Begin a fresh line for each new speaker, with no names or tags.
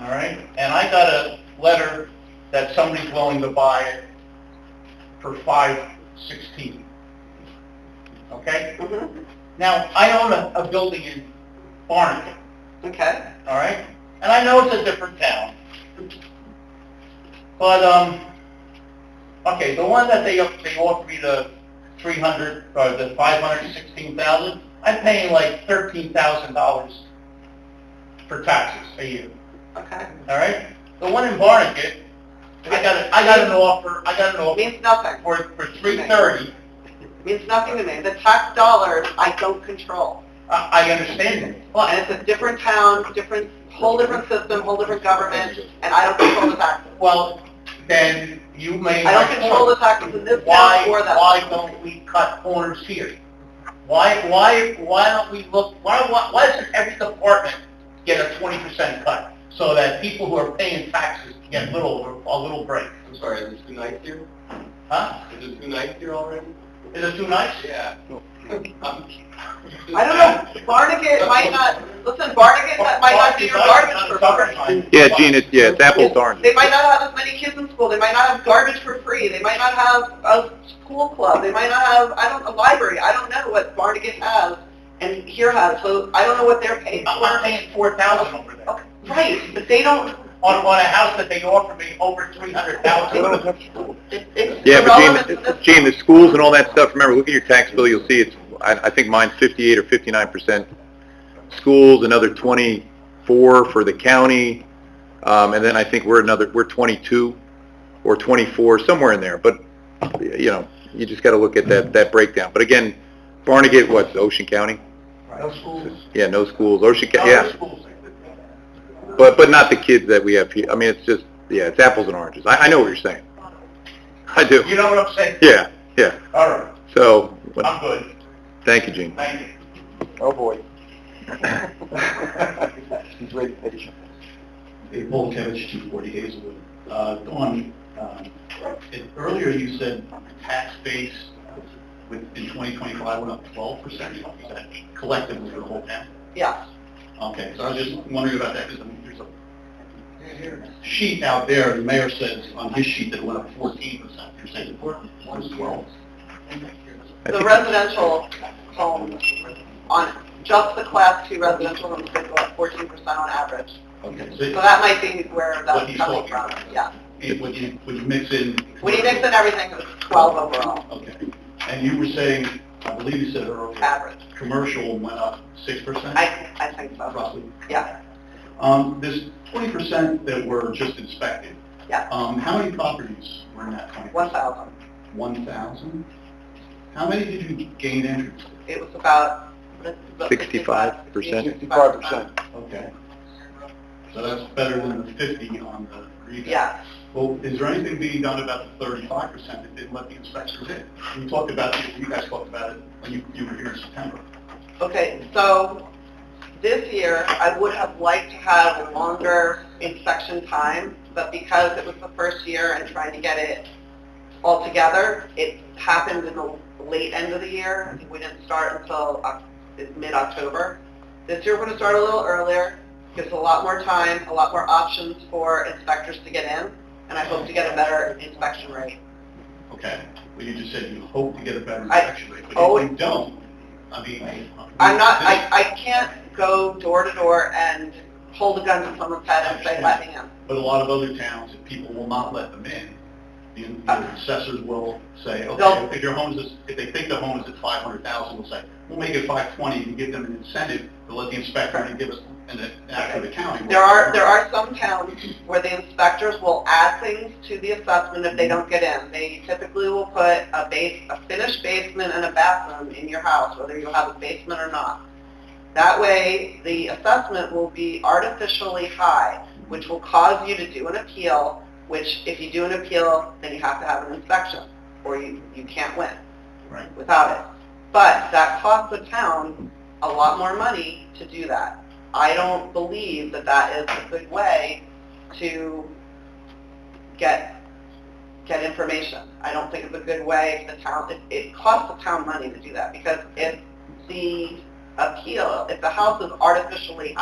all right? And I got a letter that somebody's willing to buy it for five sixteen. Okay?
Mhm.
Now, I own a, a building in Barnegat,
Okay.
all right? And I know it's a different town. But, um, okay, the one that they, they offered me the three hundred, or the five hundred sixteen thousand, I'm paying like thirteen thousand dollars for taxes a year.
Okay.
All right. The one in Barnegat, I got a, I got an offer. I got an
It
offer
means nothing.
for for three thirty.
It means nothing to me. The tax dollars, I don't control.
I, I understand that.
Well, and it's a different town, different, whole different system, whole different government, and I don't control the taxes.
Well, then you may.
I don't control the taxes in this
Why
town or that.
why don't we cut corners here? Why why why don't we look? Why why, why doesn't every department get a twenty percent cut so that people who are paying taxes get little a little break?
I'm sorry, is it too nice here?
Huh?
Is it too nice here already?
Is it too nice?
Yeah.
I don't know, Barnegat might not, listen, Barnegat, that might not be your garbage for free.
Yeah, Gene, it's, yeah, it's apples to oranges.
They might not have as many kids in school, they might not have garbage for free, they might not have a school club, they might not have, I don't, a library, I don't know what Barnegat has and here has, so I don't know what they're paying
I'm
for.
paying four thousand over there.
Right, but they don't,
on, on a house that they offered me over three hundred thousand.
it- it's
Yeah,
irrelevant
but
to
Gene,
this.
Gene, the schools and all that stuff, remember, look at your tax bill, you'll see it's, I, I think mine's fifty-eight or fifty-nine percent schools, another twenty-four for the county, um, and then I think we're another, we're twenty-two or twenty-four, somewhere in there, but, you know, you just gotta look at that, that breakdown. But again, Barnegat, what's Ocean County?
No schools.
Yeah, no schools, Ocean, County.
No
yeah,
schools.
but, but not the kids that we have here, I mean, it's just, yeah, it's apples and oranges, I, I know what you're saying. I do,
You know what I'm saying?
yeah, yeah,
All right,
so,
I'm good,
Thank you, Gene.
thank you.
Oh, boy. He's very patient.
Hey, Paul Kevich, 240 Hazelwood. Uh, Dawn, um, it- earlier you said tax base uh, with, in 2025 went up 12%. Is that collectively for the whole town?
Yeah,
Okay, so I was just wondering about that because I mean, there's a sheet out there, the mayor says on his sheet that it went up 14%. You're saying it was 12?
the residential homes on, just the class two residential homes, they go up fourteen percent on average.
Okay.
So
So
that might be where
What
that's
he's
coming
talking
from,
about.
yeah.
it- when you, when you mix in...
When you mix in everything, it was 12 overall,
Okay. And you were saying, I believe you said earlier,
average.
commercial went up 6%?
I, I think so,
roughly.
yeah.
Um, this twenty percent that were just inspected.
Yeah.
Um, how many properties were in that twenty?
1,000.
One thousand? How many did you gain entrance? to?
It was about... about
65%.
65%.
Okay. So that's better than the fifty on the rebound.
Yeah.
Well, is there anything being done about the thirty-five percent that didn't let the inspectors in? You talked about, it. you guys talked about it when you, you were here in September.
Okay, so this year, I would have liked to have a longer inspection time, but because it was the first year and trying to get it all together, it happened in the late end of the year. I think we didn't start until Oc- mid-October. This year, we're going to start a little earlier, gives a lot more time, a lot more options for inspectors to get in, and I hope to get a better inspection rate.
Okay. Well, you just said you hope to get a better
I-
inspection rate, but
always-
if you don't, I mean.
I'm not,
this-
I, I can't go door to door and hold a gun to someone's head and say, let me in.
But a lot of other towns, if people will not let them in, the the assessors will say,
Uh. They'll-
okay, if your home is, if they think the home is at five hundred thousand, we'll say, we'll make it five twenty and give them an incentive to let the inspector and give us, and then after the county.
There are, there are some towns where the inspectors will add things to the assessment if they don't get in. They typically will put a base, a finished basement and a bathroom in your house, whether you have a basement or not. That way, the assessment will be artificially high, which will cause you to do an appeal, which if you do an appeal, then you have to have an inspection, or you, you can't win
Right.
without it. But that costs the town a lot more money to do that. I don't believe that that is a good way to get, get information. I don't think it's a good way for the town, it, it costs the town money to do that because if the appeal, if the house is artificially